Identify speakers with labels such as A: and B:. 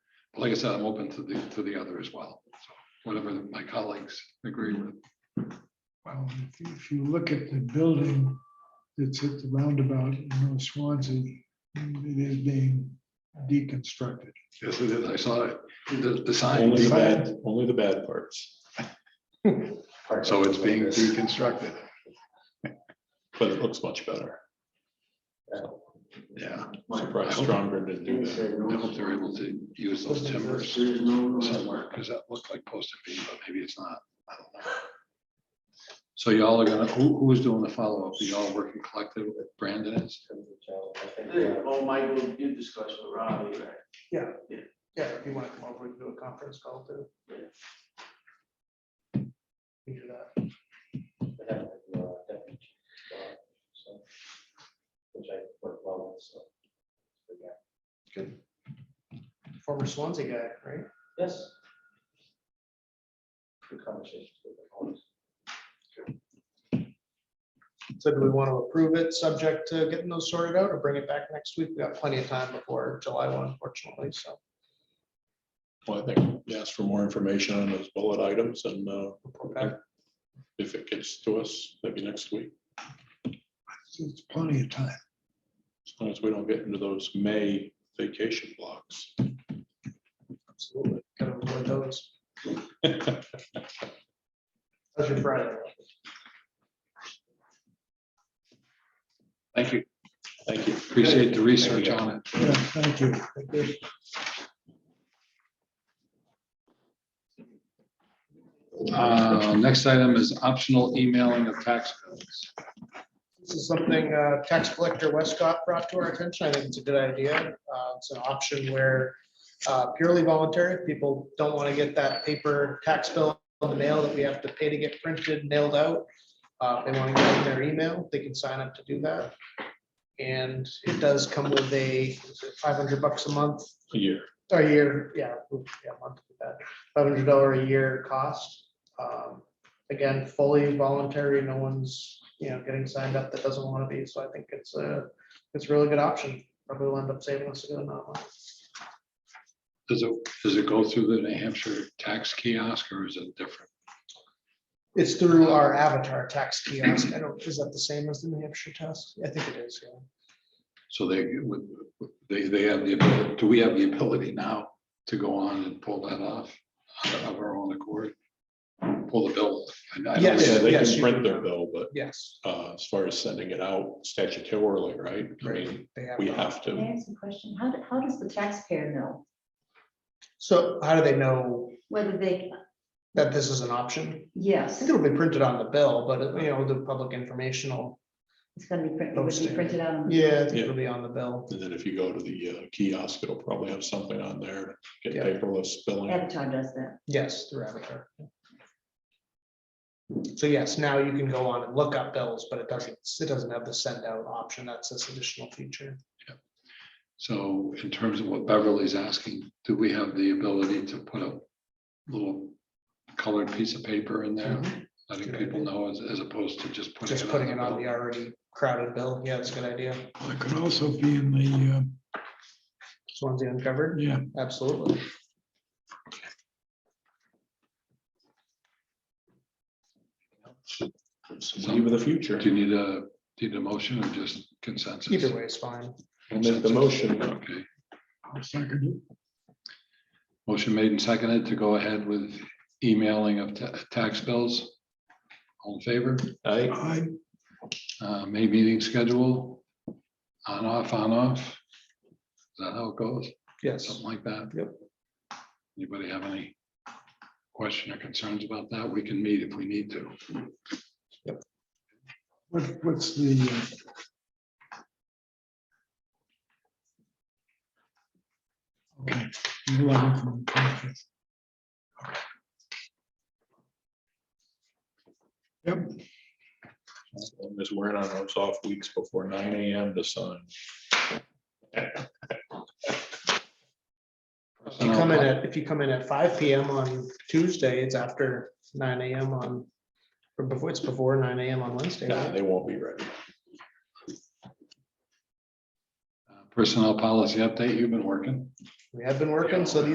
A: like I said, I'm open to the, to the other as well, so whatever my colleagues agree with.
B: Well, if you- if you look at the building that's at the roundabout in North Swansea, it is being deconstructed.
A: Yes, it is. I saw it, the, the sign,
C: Only the
A: so
C: bad, only the bad parts,
A: it's being deconstructed,
C: but it looks much better.
A: yeah.
C: Surprised stronger to do that.
A: I hope they're able to use those timbers somewhere, because that looked like posted beam, but maybe it's not. I don't know. So y'all are gonna, who, who's doing the follow-up? Are y'all working collective with Brandon? is?
D: Oh, Michael, you discussed with Robbie, right?
E: Yeah, if you want to come over, we can do a conference call too. We do that. Former Swansea guy, right?
F: Yes. Good conversations with the colleagues.
E: So do we want to approve it, subject to getting those sorted out or bring it back next week? We've got plenty of time before July one, unfortunately, so.
C: Well, I think we asked for more information on those bullet items and uh,
E: okay.
C: if it gets to us, maybe next week,
B: It's- It's plenty of time.
C: as long as we don't get into those May vacation blocks.
E: Absolutely. Gotta avoid those.
C: It
E: How's your Friday?
A: Thank you. Thank you. Appreciate the research on it.
B: Yeah, thank you.
A: Uh, Next item is optional emailing of tax bills.
E: This is something uh, tax collector Westcott brought to our attention. I think it's a good idea. Uh, It's an option where uh, purely voluntary, people don't want to get that paper tax bill on the mail that we have to pay to get printed, mailed out. Uh, They want to get it in their email, they can sign up to do that. And it does come with a five hundred bucks a month
C: A year.
E: a year, yeah, oof, yeah, month, five hundred dollar a year cost. Um, Again, fully voluntary, no one's, you know, getting signed up that doesn't want to be, so I think it's a, it's a really good option. Probably will end up saving us a good amount. of money.
A: Does it, does it go through the New Hampshire tax kiosk or is it different?
E: It's through our avatar tax kiosk. I don't, is that the same as the New Hampshire test? I think it is, yeah.
A: So they would, they, they have the, ability. do we have the ability now to go on and pull that off of our own accord? Pull the bill? I- I don't-
E: Yes,
C: Yeah, they
E: yes,
C: can
E: you
C: print
E: can.
C: their bill, but
E: Yes,
C: uh, as far as sending it out statutorily, right? I mean,
E: they have.
C: we
E: that.
C: have
G: Can
C: to,
G: I ask a question? How, do- how does the taxpayer know
E: So how do they know
G: whether they,
E: that this is an option? I
G: yes,
E: think it'll be printed on the bill, but you know, the public informational,
G: it's gonna be printed, it would
E: Posting.
G: be printed out. on-
E: yeah, I think it'll be on the bill.
C: and then if you go to the uh, kiosk, it'll probably have something on there, get
E: Yeah.
C: paperless billing.
G: Avatar does that.
E: Yes, through Avatar. So yes, now you can go on and look up bills, but it doesn't, it doesn't have the send out option. That's this additional feature.
A: So in terms of what Beverly's asking, do we have the ability to put a little colored piece of paper in there?
B: Mm-hmm.
A: Letting people know as, as opposed to just putting.
E: Mm-hmm. Just putting it on
A: bill?
E: the already crowded bill. Yeah, that's a good idea.
B: It could also be in the, uh,
E: Swansea uncovered.
B: yeah,
E: Absolutely.
C: Somebody with the future.
A: Do you need a, do you need a motion or just consensus?
E: Either way is fine.
C: I'll make the motion.
A: Okay,
B: I'll second it.
A: motion made and seconded to go ahead with emailing of ta- tax bills. All in favor,
C: I,
B: I,
A: uh, May meeting schedule, on off, on off. Is that how it goes?
E: Yes.
A: Something like that.
E: Yep.
A: Anybody have any question or concerns about that? We can meet if we need to.
B: what, what's the, uh, okay. the 11th and the 25th.
C: I'm just wearing on those off weeks before nine AM to sign.
E: If
A: Uh,
E: you come in at, if you come in at five PM on Tuesday, it's after nine AM on, or before, it's before nine AM on Wednesday.
C: Nah,
E: right?
C: they won't be ready.
A: Personnel policy update, you've been working.
E: We have been working, so these